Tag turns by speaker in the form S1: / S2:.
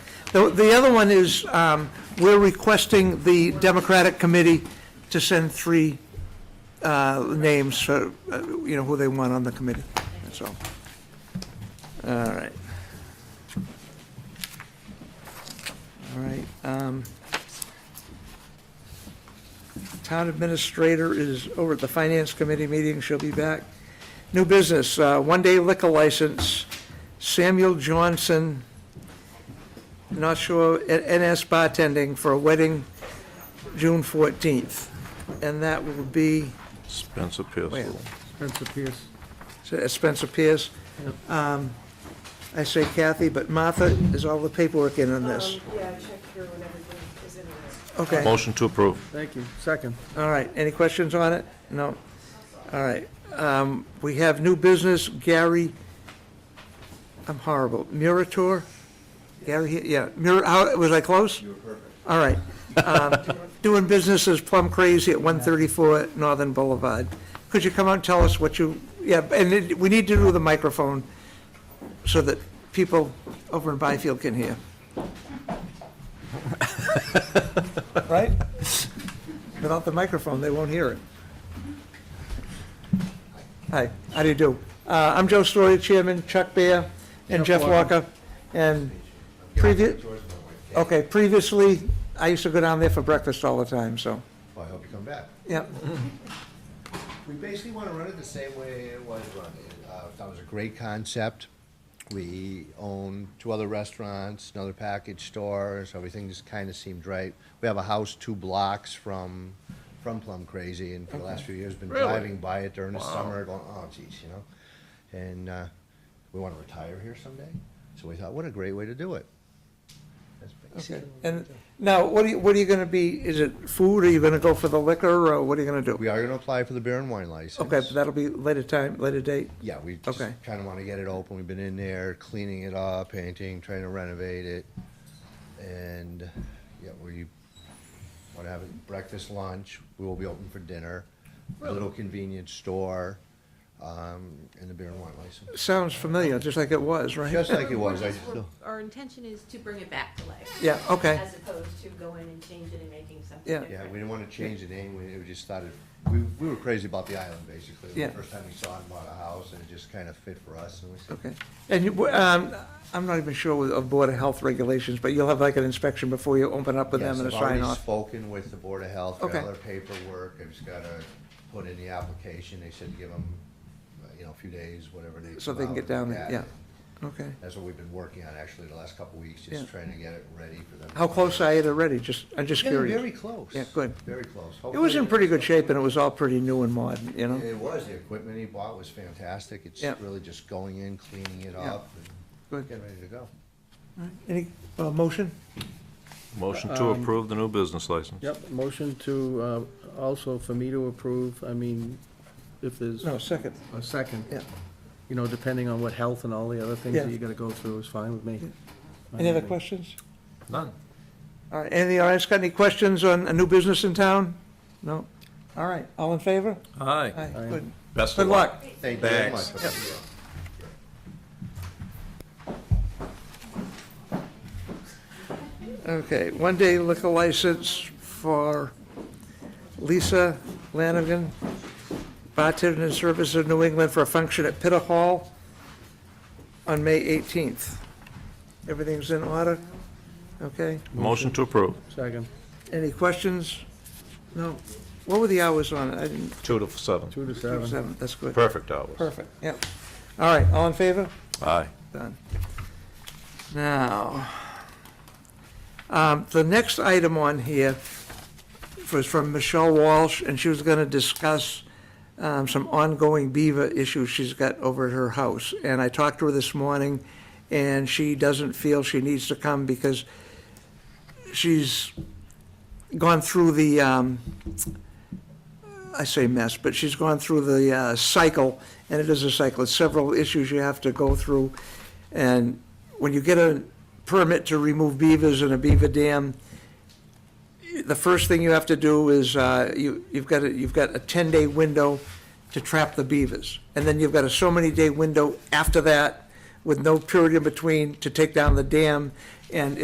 S1: The, the other one is, um, we're requesting the Democratic Committee to send three, uh, names for, uh, you know, who they want on the committee, that's all. All right. All right, um, town administrator is over at the finance committee meeting, she'll be back. New business, uh, one-day liquor license, Samuel Johnson, North Shore NS bartending for a wedding, June 14th. And that will be
S2: Spencer
S1: Wait.
S2: Pierce.
S3: Spencer Pierce.
S1: at Spencer Pierce. Um, I say Kathy, but Martha, is all the paperwork in on this?
S4: Um, Yeah, check here when everything is in there.
S1: Okay.
S2: Motion to approve.
S3: Thank you. Second.
S1: All right, any questions on it? No? All right. Um, We have new business, Gary, I'm horrible, Murator? Gary, yeah, Mur, how, was I close? You were perfect. All right. Um, Doing business is Plum Crazy at 134 Northern Boulevard. Could you come out and tell us what you, yeah, and it- we need to do the microphone so that people over in Byfield can hear. Right? Without the microphone, they won't hear it. Hi, how do you do? Uh, I'm Joe Story, Chairman, Chuck Bear, and
S3: Jeff
S1: Jeff Walker. And previous, okay, previously, I used to go down there for breakfast all the time, so,
S5: Well, Oh, I hope you come back.
S1: yeah.
S5: We basically want to run it the same way it was run. Uh, That was a great concept. We own two other restaurants, another package store, so everything just kind of seemed right. We have a house two blocks from, from Plum Crazy, and for the last few years, been driving by it during the summer, going, oh geez, you know? And uh, we want to retire here someday, so we thought, what a great way to do it. That's
S1: Okay.
S5: basically
S1: And now, what are you, what are you gonna be, is it food, are you gonna go for the liquor, or what are you gonna do?
S5: We are going to apply for the beer and wine license.
S1: Okay, but that'll be later time, later date?
S5: Yeah, we just
S1: Okay.
S5: kind of want to get it open. We've been in there cleaning it up, painting, trying to renovate it. And, yeah, we want to have it breakfast, lunch. We will be open for dinner. A Little convenience store, um, and the beer and wine license.
S1: Sounds familiar, just like it was, right?
S5: Just like it was, I
S6: We're just-
S5: still,
S6: Our intention is to bring it back to life,
S1: Yeah, okay,
S6: as opposed to going and changing and making something
S1: Yeah.
S6: different.
S5: yeah, we didn't want to change the name. We, we just thought it, we, we were crazy about the island, basically.
S1: Yeah.
S5: The first time we saw it, bought a house, and it just kind of fit for us, and we said,
S1: okay. And you, um, I'm not even sure with- of Board of Health regulations, but you'll have like an inspection before you open up with
S5: Yes,
S1: them and a
S5: I've
S1: sign
S5: already
S1: off?
S5: spoken with the Board of Health, got
S1: Okay.
S5: all their paperwork, I've just gotta put in the application, they said give them, you know, a few days, whatever they.
S1: So they can
S5: allow
S1: get
S5: to
S1: down
S5: look
S1: there,
S5: at
S1: yeah.
S5: it.
S1: Okay.
S5: That's what we've been working on actually the last couple of weeks,
S1: Yeah.
S5: just trying to get it ready for them.
S1: How close are you to ready? Just, I'm just
S5: Getting very
S1: curious.
S5: close.
S1: Yeah, good.
S5: Very close.
S1: It was in
S5: Hopefully-
S1: pretty good shape, and it was all pretty new and modern, you know?
S5: It was, the equipment he bought was fantastic, it's
S1: Yeah.
S5: really just going in, cleaning it
S1: Yeah.
S5: up,
S1: Good.
S5: and getting ready to go.
S1: Any, uh, motion?
S2: Motion to
S1: Um,
S2: approve the new business license.
S3: Yep, motion to, uh, also for me to approve, I mean, if there's
S1: No, second.
S3: a second.
S1: Yeah.
S3: You know, depending on what health and all the other things
S1: Yeah.
S3: that you gotta go through is fine with me.
S1: Any other questions?
S2: None.
S1: All right, any, all right, got any questions on a new business in town? No? All right, all in favor?
S2: Aye.
S1: Aye, good.
S2: Best
S1: Good
S2: of luck.
S1: luck.
S5: Thank you very much.
S2: Thanks.
S1: Okay, one-day liquor license for Lisa Lanigan, bartender and service of New England for a function at Pitta Hall on May 18th. Everything's in order? Okay,
S2: Motion to approve.
S3: Second,
S1: any questions? No? What were the hours on it? I didn't,
S2: Two to seven.
S3: two to seven.
S1: seven, that's good.
S2: Perfect hours.
S1: Perfect, yep. All right, all in favor?
S2: Aye.
S1: Done. Now, um, the next item on here was from Michelle Walsh, and she was gonna discuss um, some ongoing beaver issues she's got over at her house. And I talked to her this morning, and she doesn't feel she needs to come because she's gone through the, um, I say mess, but she's gone through the uh, cycle, and it is a cycle, it's several issues you have to go through. And when you get a permit to remove beavers in a beaver dam, the first thing you have to do is, uh, you, you've got, a- you've got a 10-day window to trap the beavers. And then you've got a so-many-day window after that, with no period in between, to take down the dam. And